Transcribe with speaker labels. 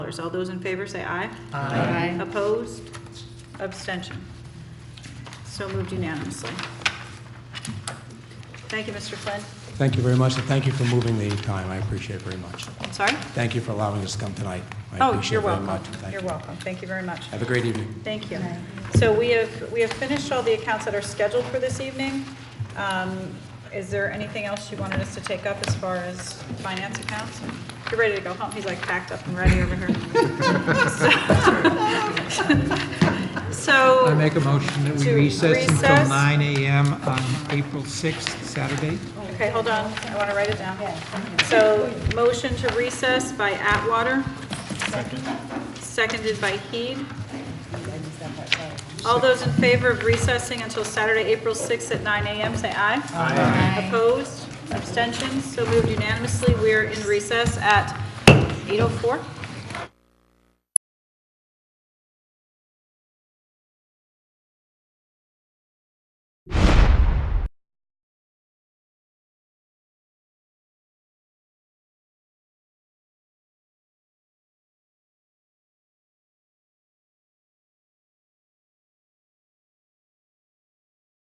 Speaker 1: All those in favor say aye. Aye. Opposed? Abstention? So moved unanimously. Thank you, Mr. Flynn.
Speaker 2: Thank you very much, and thank you for moving the time. I appreciate it very much.
Speaker 1: I'm sorry?
Speaker 2: Thank you for allowing us to come tonight. I
Speaker 1: Oh,
Speaker 2: appreciate
Speaker 1: you're
Speaker 2: it very
Speaker 1: welcome.
Speaker 2: much. Thank
Speaker 1: You're
Speaker 2: you.
Speaker 1: welcome. Thank you very much.
Speaker 2: Have a great evening.
Speaker 1: Thank you. So we have, we have finished all the accounts that are scheduled for this evening. Um, Is there anything else you wanted us to take up as far as finance accounts? You're ready to go home. He's like packed up and ready over here. So.
Speaker 3: I make a motion that we
Speaker 1: To
Speaker 3: recess until
Speaker 1: recess.
Speaker 3: 9 AM on April 6th, Saturday.
Speaker 1: Okay, hold on, I want to write it down. So, motion to recess by Atwater. Seconded by Heed. All those in favor of recessing until Saturday, April 6th at 9 a.m., say aye. Aye. oh Opposed, abstentions, so moved unanimously. We're in recess at 8:04.